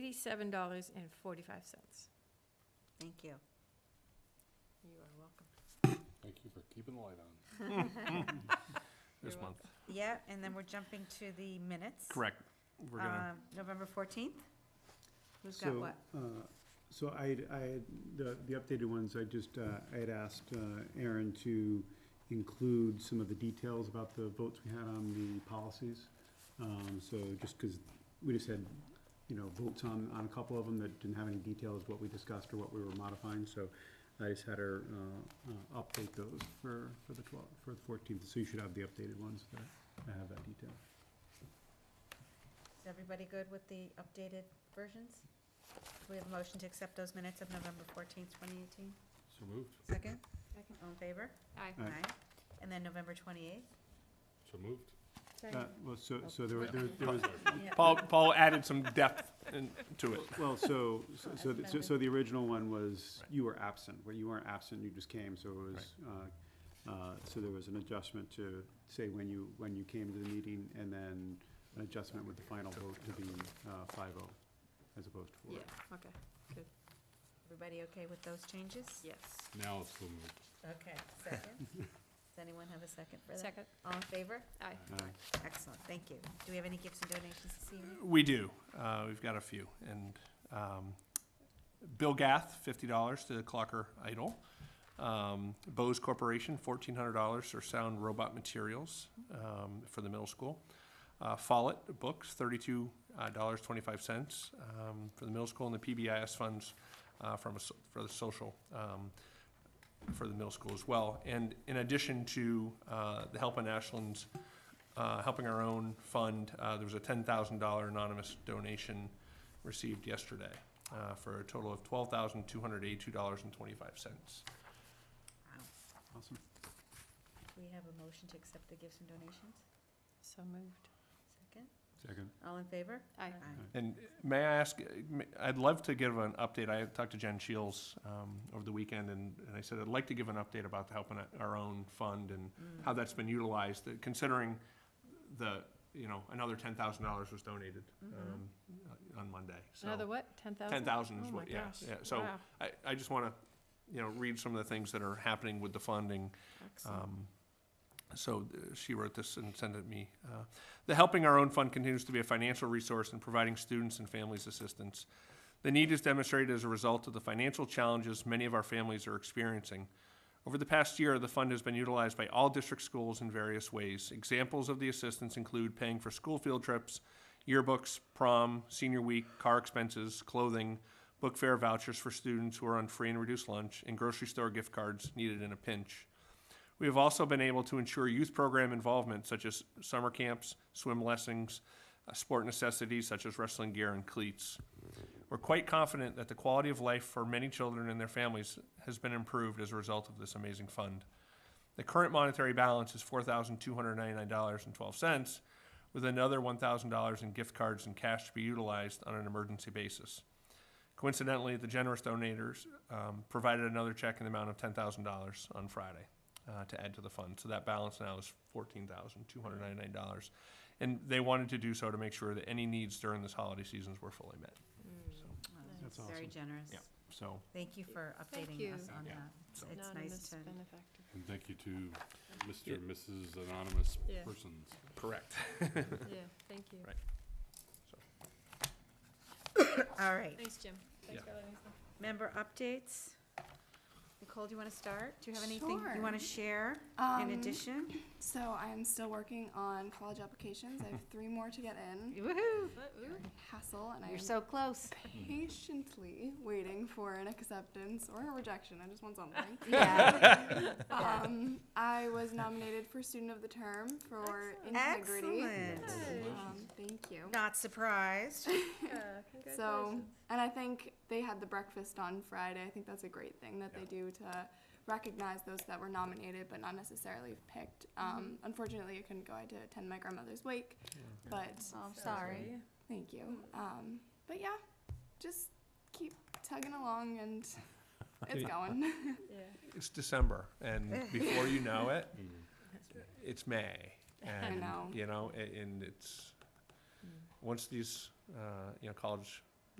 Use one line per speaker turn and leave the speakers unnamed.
eighty-seven dollars and forty-five cents.
Thank you.
You are welcome.
Thank you for keeping the light on.
You're
This month,
Yeah, and then we're jumping to the minutes.
correct. We're gonna,
Um, November 14th? Who's got
So,
what?
uh, So I, had- I, had- the, the updated ones, I just, uh, I had asked uh, Aaron to include some of the details about the votes we had on the policies. Um, So just because we just had, you know, votes on, on a couple of them that didn't have any details, what we discussed or what we were modifying. So I just had her uh, uh, update those for, for the 12th, for the 14th. So you should have the updated ones that that have that detail.
Is everybody good with the updated versions? Do we have a motion to accept those minutes of November 14th, 2018?
so moved,
Second?
Second.
All in favor?
Aye.
Aye.
And then November 28th?
so moved.
Uh, Well, so, so there were, there were- there was,
Paul, Paul added some depth in- to it.
Well, so, so- so, the- so- so the original one was,
Right.
you were absent, where you weren't absent, you just came, so it was, uh, uh, so there was an adjustment to say when you, when you came to the meeting, and then an adjustment with the final vote to be, uh, five oh, as opposed to four.
Yeah, okay,
Everybody okay with those changes?
yes.
Now it's so moved.
Okay, second? Does anyone have a second for that?
Second,
All in favor?
aye.
Aye.
Excellent, thank you. Do we have any gifts and donations this evening?
We do. Uh, We've got a few. And um, Bill Gath, $50 to Clocker Idol. Um, Bose Corporation, $1,400 for sound robot materials um, for the middle school. Uh, Follett Books, uh, $32.25 um, for the middle school, and the PBIS funds uh, from, a so- for the social, um, for the middle school as well. And in addition to uh, the Help in Ashland's uh, helping our own fund. Uh, there was a ten thousand dollar anonymous donation received yesterday uh, for a total of twelve thousand two hundred eighty-two dollars and twenty-five cents.
Wow.
Awesome.
We have a motion to accept the gifts and donations?
So moved.
Second?
Second.
All in favor?
Aye.
And may I ask, I'd love to give an update. I talked to Jen Shields um, over the weekend, and, and I said I'd like to give an update about the helping our own fund and
Mm.
how that's been utilized, that considering the you know another ten thousand dollars was donated
Mm-hmm.
um, on Monday. So
Another what, ten thousand?
ten thousand
Oh
is
my
what, yeah,
gosh.
yeah. So um,
Wow.
I, I just want to, you know, read some of the things that are happening with the funding.
Excellent.
Um, So uh, she wrote this and sent it me. Uh, The Helping Our Own Fund continues to be a financial resource in providing students and families assistance. The need is demonstrated as a result of the financial challenges many of our families are experiencing. Over the past year, the fund has been utilized by all district schools in various ways. Examples of the assistance include paying for school field trips, yearbooks, prom, senior week, car expenses, clothing, book fare vouchers for students who are on free and reduced lunch, and grocery store gift cards needed in a pinch. We have also been able to ensure youth program involvement such as summer camps, swim lessons, uh, sport necessities such as wrestling gear and cleats. We're quite confident that the quality of life for many children and their families has been improved as a result of this amazing fund. The current monetary balance is four thousand two hundred ninety-nine dollars and twelve cents, with another one thousand dollars in gift cards and cash to be utilized on an emergency basis. Coincidentally, the generous donors um, provided another check in the amount of ten thousand dollars on Friday uh, to add to the fund. So that balance now is fourteen thousand two hundred ninety-nine dollars, and they wanted to do so to make sure that any needs during this holiday season were fully met.
Mm.
So,
Wow,
That's
Very
awesome.
generous.
Yeah. so
Thank you for
Thank
updating
you.
us on
Yeah.
that. It's-
So-
It's nice
Anonymous
to,
benefactor.
And thank you to Mr. and Mrs. Anonymous
Yeah.
Persons.
correct.
Yeah, thank you.
Right.
all right.
Thanks, Jim. Thanks for letting us know.
Member updates? Nicole, do you want to start? Do you have anything you
Sure.
want to share in
Um,
addition?
So I'm still working on college applications. I have three more to get in.
Woohoo!
Hassle, and I
You're
am
so close.
patiently waiting for an acceptance or a rejection. I just want something.
Yeah.
um, I was nominated for Student of the Term for Integrity.
Excellent.
Um, thank you.
Not surprised.
Yeah,
So,
congratulations.
and I think they had the breakfast on Friday. I think that's a great thing that they do to recognize those that were nominated but not necessarily picked. Um,
Mm-hmm.
unfortunately, I couldn't go. I had to attend my grandmother's wake, but
Oh, I'm
sorry.
Thank you. Um, but yeah, just keep tugging along and it's going.
Yeah.
It's December, and before you know it,
Mm.
it's May. And,
know.
You know, a- and it's, once these, uh, you know, college